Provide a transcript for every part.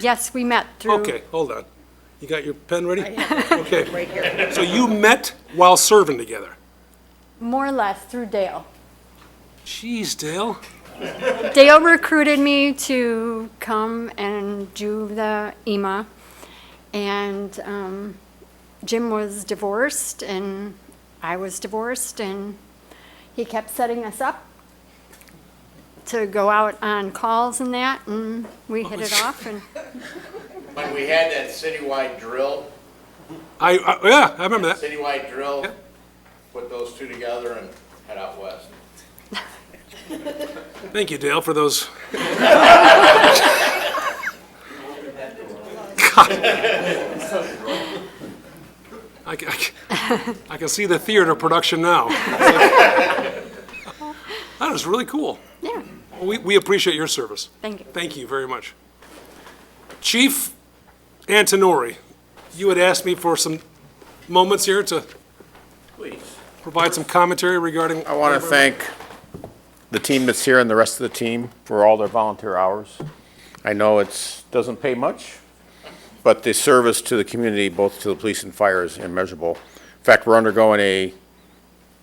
Yes, we met through. Okay, hold on. You got your pen ready? Okay. So you met while serving together? More or less through Dale. Jeez, Dale. Dale recruited me to come and do the EMA. And um, Jim was divorced and I was divorced and he kept setting us up to go out on calls and that and we hit it off and When we had that citywide drill, I, I- yeah, I remember that. citywide drill, put those two together and head out west. Thank you, Dale, for those. God. I ca- I ca- I can see the theater production now. That is really cool. yeah, We we appreciate your service. thank you. Thank you very much. Chief Antonori, you had asked me for some moments here to Please. provide some commentary regarding... I want to thank the team that's here and the rest of the team for all their volunteer hours. I know it's, doesn't pay much, but the service to the community, both to the police and fire, is immeasurable. In fact, we're undergoing a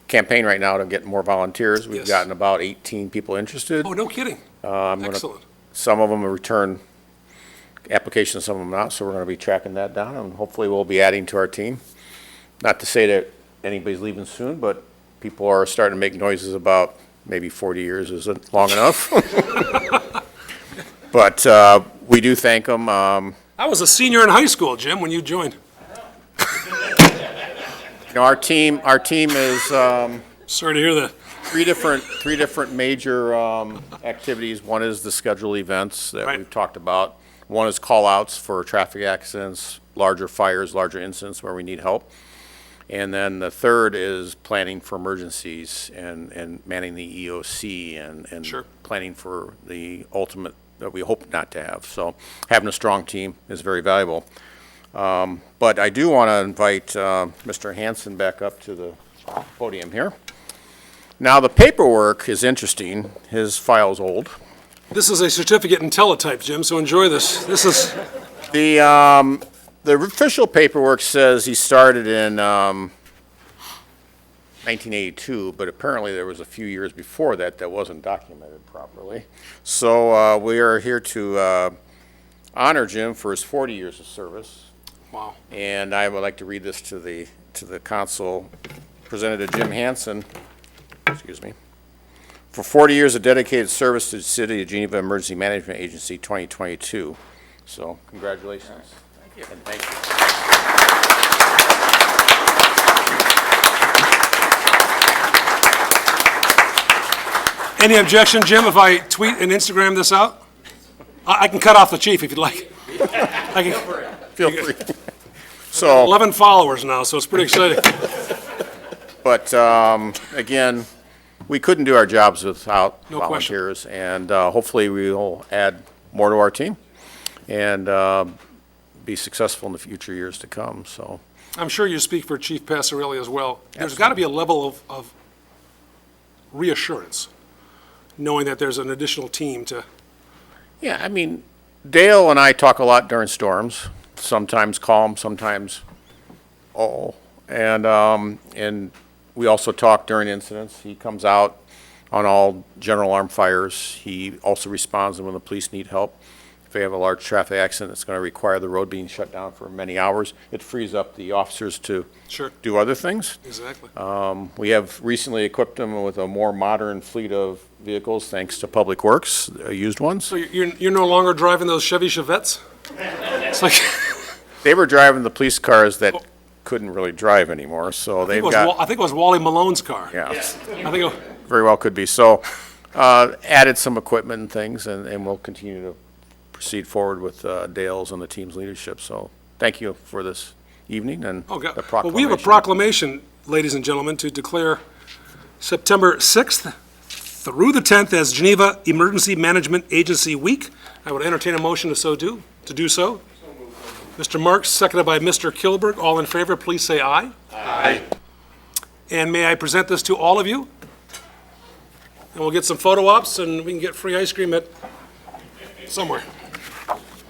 campaign right now to get more volunteers. We've Yes. gotten about 18 people interested. Oh, no kidding. Uh, Excellent. Some of them will return applications, some of them not, so we're going to be tracking that down, and hopefully we'll be adding to our team. Not to say that anybody's leaving soon, but people are starting to make noises about maybe 40 years isn't long enough. But uh, we do thank them. Um, I was a senior in high school, Jim, when you joined. You know, our team, our team is, um, Sorry to hear that. three different, three different major um, activities. One is the scheduled events that Right. we've talked about. One is call-outs for traffic accidents, larger fires, larger incidents where we need help. And then the third is planning for emergencies and, and manning the EOC and, and Sure. planning for the ultimate that we hope not to have. So having a strong team is very valuable. Um, But I do want to invite uh, Mr. Hanson back up to the podium here. Now, the paperwork is interesting. His file's old. This is a certificate in teletype, Jim, so enjoy this. This is, The, um, the official paperwork says he started in, um, 1982, but apparently there was a few years before that that wasn't documented properly. So, uh, we are here to, uh, honor Jim for his 40 years of service. wow. And I would like to read this to the, to the council, presented to Jim Hansen, excuse me. For 40 years of dedicated service to the City of Geneva Emergency Management Agency 2022. So congratulations. Thank you. And thank Any objection, Jim, if I tweet and Instagram this out? I I can cut off the chief if you'd like. I can- you. Feel free. So. 11 followers now, so it's pretty exciting. But um, again, we couldn't do our jobs without No question. volunteers, and uh, hopefully we'll add more to our team and uh, be successful in the future years to come, so. I'm sure you speak for Chief Passarelli as well. There's got to be a level of, of reassurance, knowing that there's an additional team to, Yeah, I mean, Dale and I talk a lot during storms, sometimes calm, sometimes oh. And, um, and we also talk during incidents. He comes out on all general alarm fires. He also responds when the police need help. If they have a large traffic accident that's gonna require the road being shut down for many hours, it frees up the officers to Sure. do other things. exactly. Um, We have recently equipped them with a more modern fleet of vehicles, thanks to Public Works, uh, used ones. So you're, you're no longer driving those Chevy Chevettes? It's like, They were driving the police cars that couldn't really drive anymore, so it they've was Wa- got, I think it was Wally Malone's car. yeah, I think, it- very well could be. So, uh, added some equipment and things, and, and we'll continue to proceed forward with uh, Dale's and the team's leadership. So, thank you for this evening and oh, God. the Well, we have a proclamation. proclamation, ladies and gentlemen, to declare September 6th through the 10th as Geneva Emergency Management Agency Week. I would entertain a motion to so do, to do so. Mr. Marks, seconded by Mr. Kilberg. All in favor, please say aye. Aye. And may I present this to all of you? And we'll get some photo ops, and we can get free ice cream at somewhere.